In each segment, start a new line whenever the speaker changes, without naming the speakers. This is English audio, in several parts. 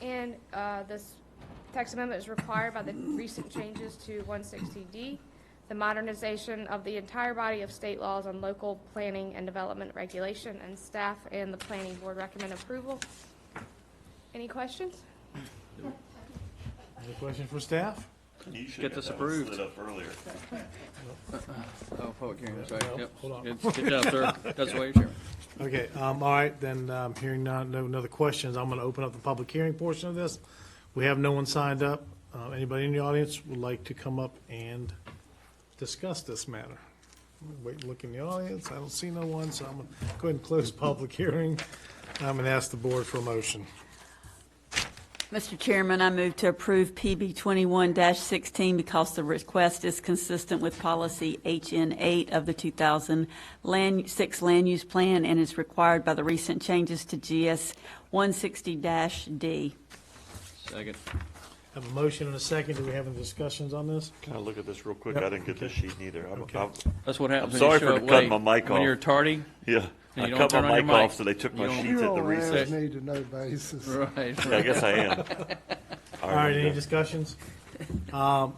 And uh, this text amendment is required by the recent changes to 160D, the modernization of the entire body of state laws on local planning and development regulation, and staff and the planning board recommend approval. Any questions?
Any question for staff?
You should
Get
have
this
got that one
approved.
Lit up earlier.
Oh, public hearing, sorry,
Well,
yep.
hold on.
Good good job, sir. That's why you're chairman.
Okay, um, all right, then, um, hearing none, no, no other questions, I'm gonna open up the public hearing portion of this. We have no one signed up. Uh, anybody in the audience would like to come up and discuss this matter? Wait, look in the audience, I don't see no one, so I'm gonna go ahead and close public hearing. I'm gonna ask the board for a motion.
Mr. Chairman, I move to approve PB 21-16 because the request is consistent with policy HN 8 of the 2006 Land Use Plan and is required by the recent changes to GS 160-D.
Second.
Have a motion and a second, do we have any discussions on this?
Can I look at this real quick? I didn't get this sheet neither. I'm,
Okay.
I'm,
That's what happens
I'm
when you
sorry
show
for
up
cutting
late.
my mic
When
off.
you're tardy,
yeah,
And
I
you
cut
don't turn
my
on
mic
your mic.
off, so they took my
You don't-
sheets
You
at the
don't ask
recess.
me to know basis.
right.
Yeah, I guess I am. All
All right, any
okay.
discussions? Um,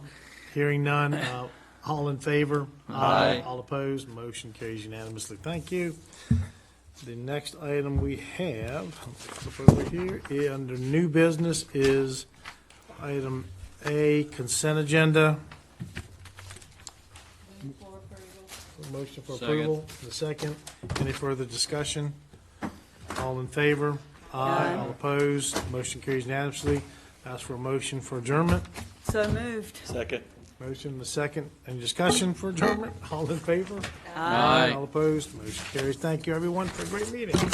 Hearing none, uh, all in favor?
Aye.
All opposed, motion carries unanimously. Thank you. The next item we have, let's look over here, eh, under new business is item A, consent agenda. Motion for
Second.
approval, the second. Any further discussion? All in favor? Aye. All opposed, motion carries unanimously. Ask for a motion for adjournment.
So moved.
Second.
Motion, the second. Any discussion for adjournment? All in favor?
Aye.
All opposed, motion carries. Thank you, everyone, for a great meeting.